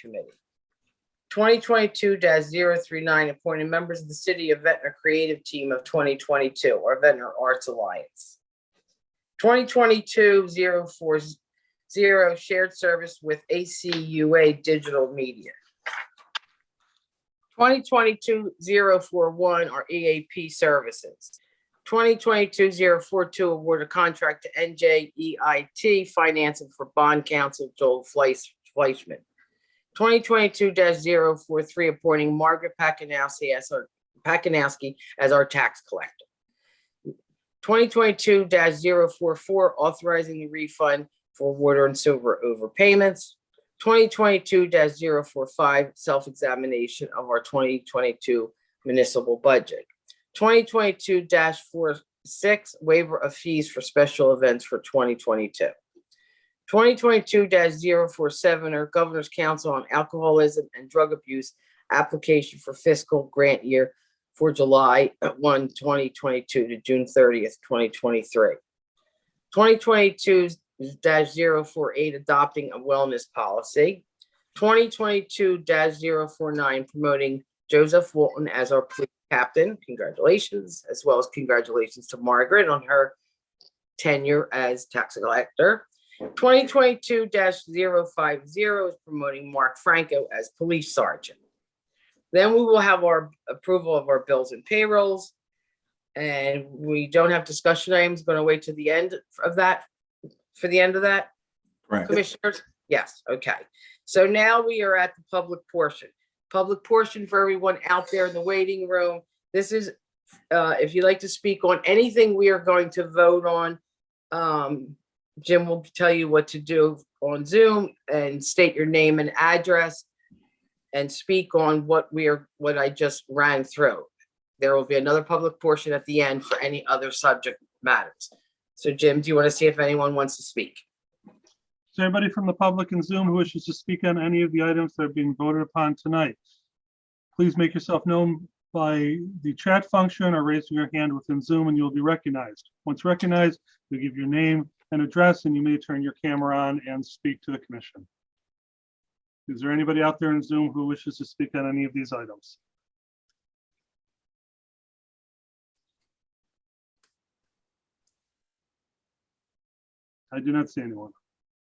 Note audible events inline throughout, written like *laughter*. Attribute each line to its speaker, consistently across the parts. Speaker 1: Committee. Twenty twenty-two 39 appointed members of the City of Ventnor Creative Team of twenty twenty-two or Ventnor Arts Alliance. 2022-040 shared service with ACUA Digital Media. 2022-041 are EAP E services. 2022-042 award a contract to NJEIT financing for bond counsel Joel Fleiss- Fleischman. 2022-043 appointing Margaret Pakinowski as our, Pakinowski as our tax collector. 2022-044 authorizing the refund for water and sewer overpayments. 2022-045 self-examination of our 2022 municipal budget. 2022-46, waiver of fees for special events for 2022. 2022-047, or Governor's Council on Alcoholism and Drug Abuse application for fiscal grant year for July 1, 2022 to June 30th, 2023. 2022-048, adopting a wellness policy. 2022-049, promoting Joseph Walton as our police captain. Congratulations, as well as congratulations to Margaret on her tenure as tax collector. 2022-050 is promoting Mark Franco as police sergeant. Then we will have our approval of our bills and payrolls. And we don't have discussion items, going to wait to the end of that, for the end of that.
Speaker 2: Correct.
Speaker 1: Commissioners? Yes, okay. So now we are at the public portion. Public portion for everyone out there in the waiting room. This is, uh, if you'd like to speak on anything we are going to vote on, um, Jim will tell you what to do on Zoom and state your name and address and speak on what we are, what I just ran through. There will be another public portion at the end for any other subject matters. So Jim, do you want to see if anyone wants to speak?
Speaker 3: Is there anybody from the public in Zoom who wishes to speak on any of the items that are being voted upon tonight? Please make yourself known by the chat function or raising your hand within Zoom and you'll be recognized. Once recognized, you give your name and address and you may turn your camera on and speak to the commission. Is there anybody out there in Zoom who wishes to speak on any of these items? I do not see anyone.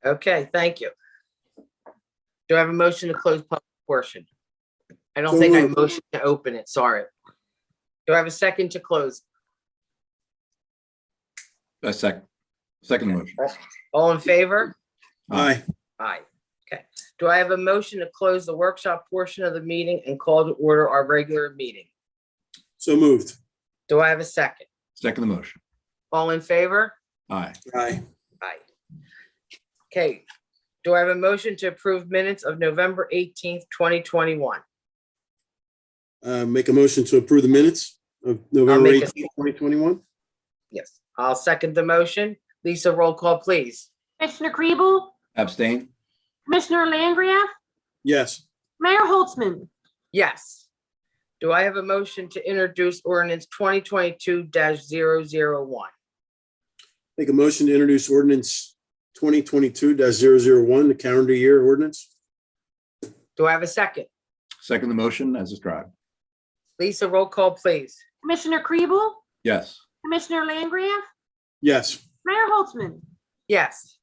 Speaker 1: Okay, thank you. Do I have a motion to close public portion? I don't
Speaker 2: So
Speaker 1: think I
Speaker 2: moved.
Speaker 1: motioned to open it, sorry. Do I have a second to close?
Speaker 2: A sec, second motion.
Speaker 1: All in favor?
Speaker 2: Aye.
Speaker 1: Aye. Okay. Do I have a motion to close the workshop portion of the meeting and call to order our regular meeting?
Speaker 4: So moved.
Speaker 1: Do I have a second?
Speaker 2: Second motion.
Speaker 1: All in favor?
Speaker 2: Aye.
Speaker 4: Aye.
Speaker 1: Aye. Okay. Do I have a motion to approve minutes of November eighteenth, twenty twenty-one?
Speaker 4: Uh, Make a motion to approve the minutes of November
Speaker 1: make a-
Speaker 4: 18th, 2021?
Speaker 1: Yes. I'll second the motion. Lisa, roll call, please.
Speaker 5: Commissioner Kribel?
Speaker 2: Abstain?
Speaker 5: Commissioner Langria?
Speaker 4: Yes.
Speaker 5: Mayor Holtzman?
Speaker 1: Yes. Do I have a motion to introduce ordinance twenty twenty-two one
Speaker 4: Make a motion to introduce ordinance 2022-001, the calendar year ordinance?
Speaker 1: Do I have a second?
Speaker 2: Second motion as described.
Speaker 1: Lisa, roll call, please.
Speaker 5: Commissioner Kribel?
Speaker 2: Yes.
Speaker 5: Commissioner Langria?
Speaker 4: Yes.
Speaker 5: Mayor Holtzman?
Speaker 1: Yes.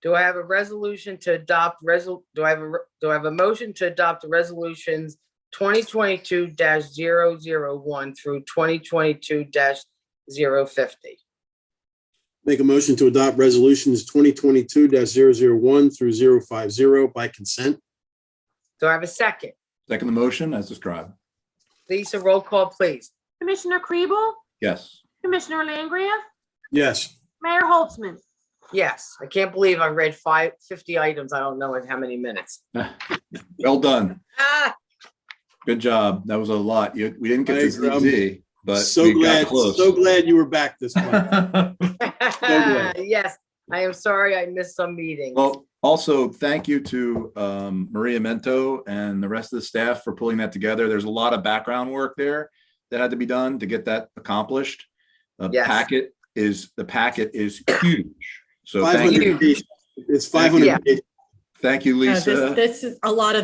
Speaker 1: Do I have a resolution to adopt resol, do I have a, re- do I have a motion to adopt the resolutions twenty twenty-two one through twenty twenty-two 50
Speaker 4: Make a motion to adopt resolutions 2022-001 through 050 by consent?
Speaker 1: Do I have a second?
Speaker 2: Second motion as described.
Speaker 1: Lisa, roll call, please.
Speaker 5: Commissioner Kribel?
Speaker 2: Yes.
Speaker 5: Commissioner Langria?
Speaker 4: Yes.
Speaker 5: Mayor Holtzman?
Speaker 1: Yes, I can't believe I read five, fifty items. I don't know in how many minutes.
Speaker 2: Well done.
Speaker 1: Ah!
Speaker 2: Good job. That was a lot. You, we didn't get to
Speaker 4: Thanks, Rob.
Speaker 2: ZZ, but
Speaker 4: So
Speaker 2: we got
Speaker 4: glad,
Speaker 2: close.
Speaker 4: so glad you were back this month.
Speaker 1: *laughs*
Speaker 4: good.
Speaker 1: Yes, I am sorry I missed some meetings.
Speaker 2: Well, also, thank you to um, Maria Mento and the rest of the staff for pulling that together. There's a lot of background work there that had to be done to get that accomplished. The
Speaker 1: Yes.
Speaker 2: packet is, the packet is huge. So thank you,
Speaker 4: 500 pages. It's
Speaker 2: Thank
Speaker 1: you.
Speaker 4: 500 pages.
Speaker 6: Yeah, this-
Speaker 2: thank you, Lisa.
Speaker 6: This is a lot of